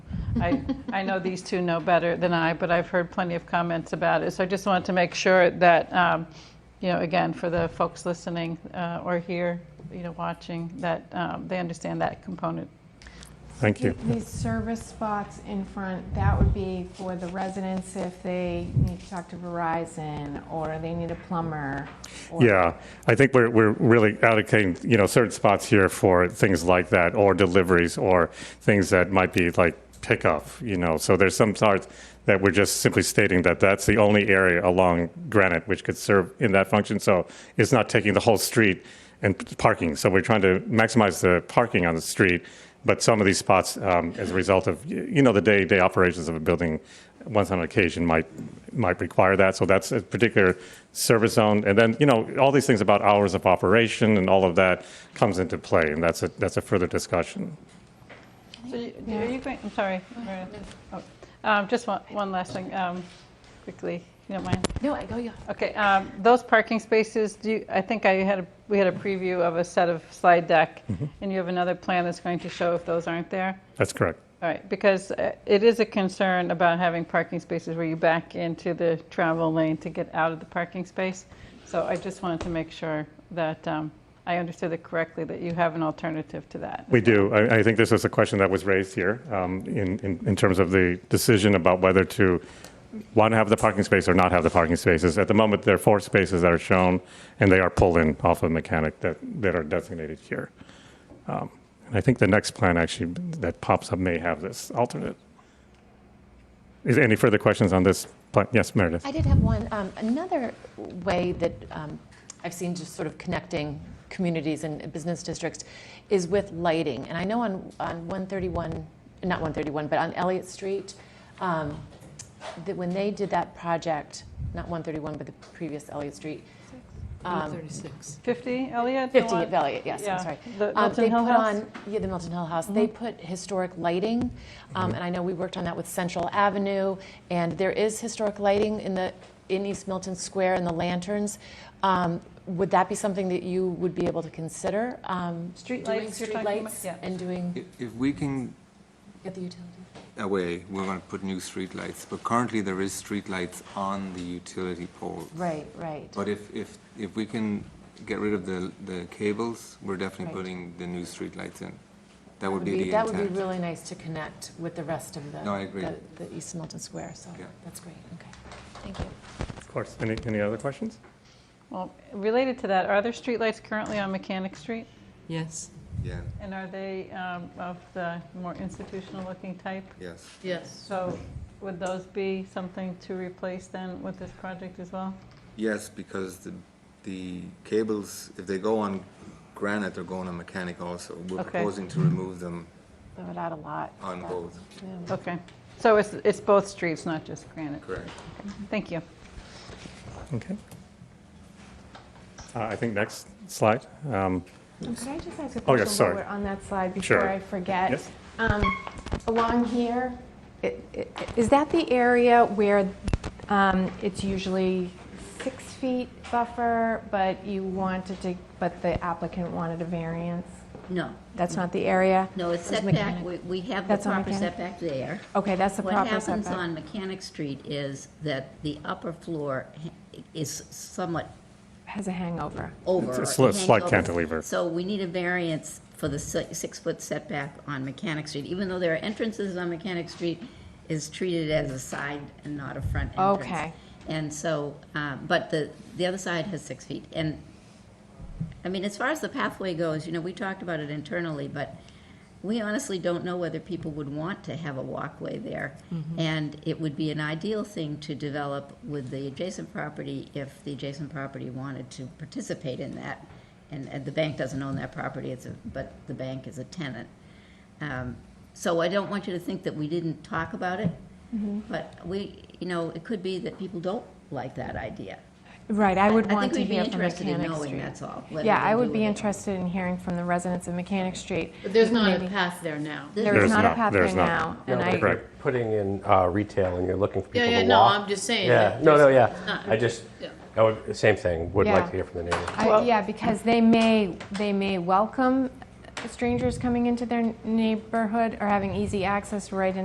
I, I know these two know better than I, but I've heard plenty of comments about it. So I just wanted to make sure that, um, you know, again, for the folks listening uh, or here, you know, watching, that um, they understand that component. Thank you. These service spots in front, that would be for the residents if they need to talk to Verizon or they need a plumber. or- Yeah, I think we're, we're really allocating, you know, certain spots here for things like that, or deliveries, or things that might be like pickup, you know. So there's some parts that we're just simply stating that that's the only area along Granite which could serve in that function. So it's not taking the whole street and p- parking. So we're trying to maximize the parking on the street. But some of these spots, um, as a result of, y- you know, the day-to-day operations of a building, once on occasion might, might require that. So that's a particular service zone. And then, you know, all these things about hours of operation and all of that comes into play. And that's a, that's a further discussion. So you- are you going, I'm sorry. Maria. Oh, um, Just one, one last thing, um, quickly, if you don't mind. No, I go, yeah. Okay, um, those parking spaces, do you, I think I had, a- we had a preview of a set of slide deck, and you have another plan that's going to show if those aren't there? That's correct. All right, because uh, it is a concern about having parking spaces where you back into the travel lane to get out of the parking space. So I just wanted to make sure that um, I understood it correctly, that you have an alternative to that. We do. I, I think this is a question that was raised here um, in, in, in terms of the decision about whether to want to have the parking space or not have the parking spaces. At the moment, there are four spaces that are shown, and they are pulled-in off of mechanic that, that are designated here. Um, And I think the next plan actually that pops up may have this alternate. Is there any further questions on this? plan? Yes, Meredith? I did have one. Um, another way that um, I've seen just sort of connecting communities and business districts is with lighting. And I know on, on 131, not 131, but on Elliott Street, um, that when they did that project, not 131, but the previous Elliott Street, um, 50, Elliot? the 50 one- at Elliott, yes, Yeah, I'm sorry. the Um, Milton they Hill put House? on- Yeah, the Milton Hill House. They put historic lighting, um, and I know we worked on that with Central Avenue, and there is historic lighting in the, in East Milton Square and the lanterns. Um, Would that be something that you would be able to consider? um, Street doing lights you're street talking about? lights Yeah. And doing, If- If we can get the utility? away, we're going to put new streetlights, but currently there is streetlights on the utility poles. Right, right. But if, if, if we can get rid of the, the cables, we're definitely Right. putting the new streetlights in. That would be the That would be intent. really nice to connect with the rest of the. No, I agree. The the East Milton Square, so Yeah. that's great, okay. Thank you. Of course. Any, any other questions? Well, related to that, are there streetlights currently on Mechanic Street? Yes. Yeah, And are they um, of the more institutional-looking type? yes. Yes. So would those be something to replace then with this project as well? Yes, because the, the cables, if they go on granite, they're going on mechanic also. We're Okay. proposing to remove them That would add a lot. on Yeah. both, Yeah. Okay, so it's, it's both streets, not just Granite? correct? Thank you. Okay. Uh, I think next slide. Um, Um, Could I just ask Oh, a yeah, question sorry. while we're on that slide Sure. before I forget? Yes. Um, Along here, i- i- is that the area where um, it's usually six feet buffer, but you wanted to, but the applicant wanted a variance? No, That's not the area? no, it's It was setback, mechanic. we we have the That's on proper mechanic? setback there. Okay, that's the What proper happens setback. on Mechanic Street is that the upper floor ha- is somewhat Has a hangover. over. It's a slight- slight hangover. cantilever. So we need a variance for the si- six-foot setback on Mechanic Street, even though there are entrances on Mechanic Street, is treated as a side and not a front entrance. Okay. And so, uh, but the, the other side has six feet. And, I mean, as far as the pathway goes, you know, we talked about it internally, but we honestly don't know whether people would want to have a walkway there. And it would be an ideal thing to develop with the adjacent property if the adjacent property wanted to participate in that. And, and the bank doesn't own that property, it's a, but the bank is a tenant. Um, So I don't want you to think that we didn't talk about it, but we, you know, it could be that people don't like that idea. Right, I would I want think to we'd be hear from interested in Mechanic knowing, Street. that's all. whether Yeah, they I do would be it or not. interested in hearing from the residents of Mechanic Street. But there's not a Maybe- path there now. There There's is not a not, path there's there not. now. Yeah, and I- but if you're putting in uh, retail and you're looking for Yeah, people yeah, to no, walk. I'm just saying. Yeah, that no, no, there's- yeah. not- I just, Yeah. I would, same thing, would like Yeah. to hear from the neighbors. I- Yeah, because they may, they may welcome strangers coming into their neighborhood or having easy access right in.